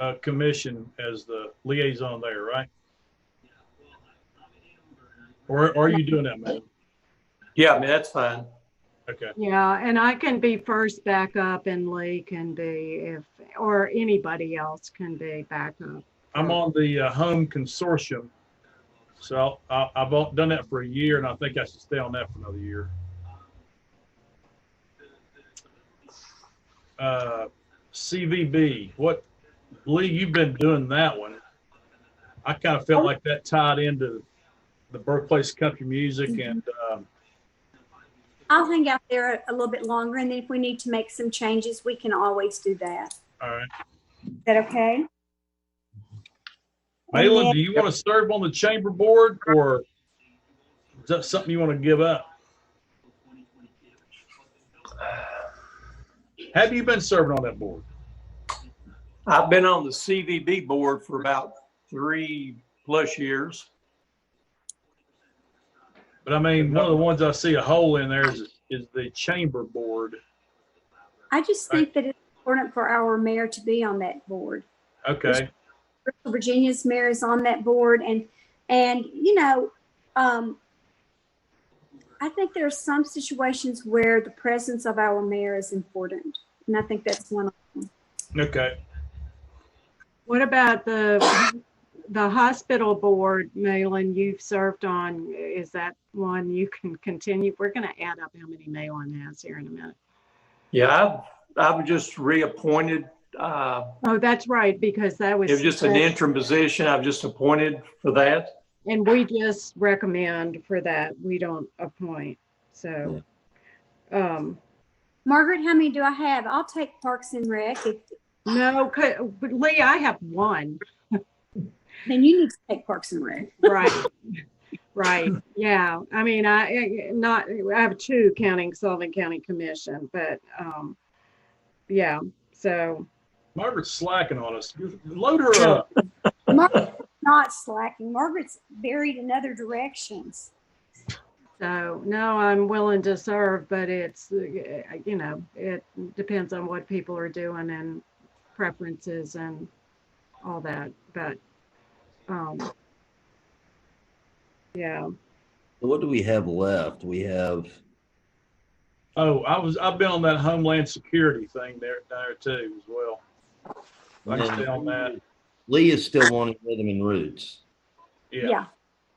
uh, commission as the liaison there, right? Or, or are you doing that, man? Yeah, I mean, that's fine. Okay, Yeah, and I can be first backup and Lee can be if, or anybody else can be backup. I'm on the uh, home consortium. So I, I've all- done that for a year and I think I should stay on that for another year. Uh, CVB, what, Lee, you've been doing that one. I kind of felt like that tied into the birthplace of country music and, um, I'll hang out there a- a little bit longer, and then if we need to make some changes, we can always do that. all right. Is that okay? Malin, do you want to serve on the chamber board or is that something you want to give up? Have you been serving on that board? I've been on the CVB board for about three plus years. But I mean, one of the ones I see a hole in there is, is the chamber board. I just think that it's important for our mayor to be on that board. Okay, Virginia's mayor is on that board, and and you know, um, I think there are some situations where the presence of our mayor is important, and I think that's one. Of, okay. What about the, the hospital board, Malin, you've served on, is that one you can continue? We're going to add up how many Malin has here in a minute. Yeah, I've, I've just reappointed. Uh, Oh, that's right, because that was. it was just an interim position. I've just appointed for that. And we just recommend for that. We don't appoint, so. Um, Margaret, how many do I have? I'll take Parks and Rec. If, no, c- but Lee, I have one. then you need to take Parks and Rec. Right, right, yeah. I mean, I, I- not, I have two counting Sullivan County Commission, but, um, yeah, so, Margaret's slacking on us. Load her up. Margaret's not slacking. Margaret's buried in other directions. so, no, I'm willing to serve, but it's, uh, you know, it depends on what people are doing and preferences and all that, but, um, yeah. What do we have left? We have, Oh, I was, I've been on that Homeland Security thing there, there too as well. I can stay on that. Lee is still wanting rhythm and roots. Yeah,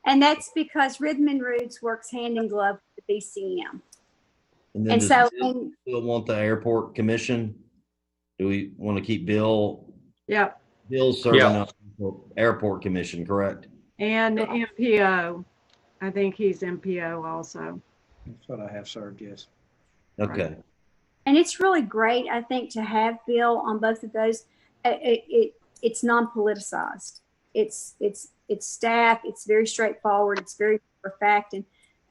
And that's because Rhythm and Roots works hand in glove with the BCM. And then And does so, Bill and still want the airport commission? Do we want to keep Bill, Yep, Bill's serving Yeah. on the airport commission, correct? And MPO, I think he's MPO also. That's what I have served, yes. Okay, and it's really great, I think, to have Bill on both of those. Uh, It, it it's non-politicized. It's it's it's staff. It's very straightforward. It's very for fact. And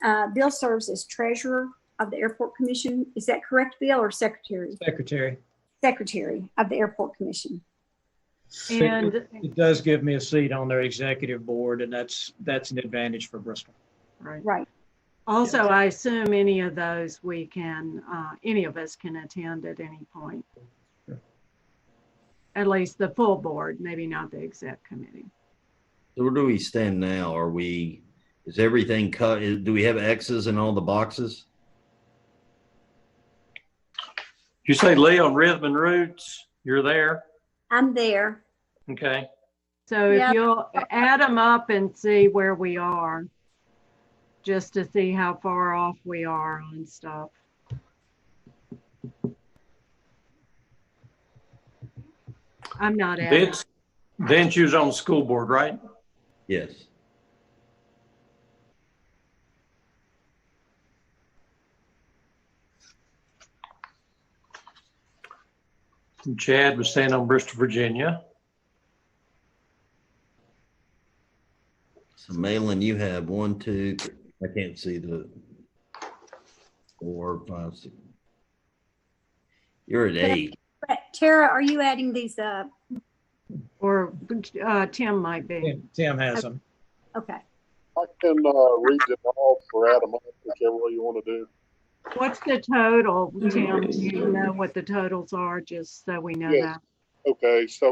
uh, Bill serves as treasurer of the airport commission. Is that correct, Bill, or secretary? Secretary. Secretary of the airport commission. It And, it does give me a seat on their executive board, and that's, that's an advantage for Bristol. right. Right. Also, I assume any of those we can, uh, any of us can attend at any point. At least the full board, maybe not the exec committee. so where do we stand now? Are we, is everything cut? Is- Do we have X's in all the boxes? You say Lee on Rhythm and Roots, you're there. I'm there. Okay. So if Yeah. you'll add them up and see where we are, just to see how far off we are on stuff. I'm not adding. Vince, Vince, you was on the school board, right? Yes. And Chad was staying on Bristol, Virginia. So Malin, you have one, two, I can't see the four, five, six. You're at eight. But Tara, are you adding these up? Or uh, Tim might be. Tim- Tim has them. Okay. I can uh, read them all or add them up, whichever way you want to do. What's the total, Tim? Do you know what the totals are, just so we know Yes. that? Okay, so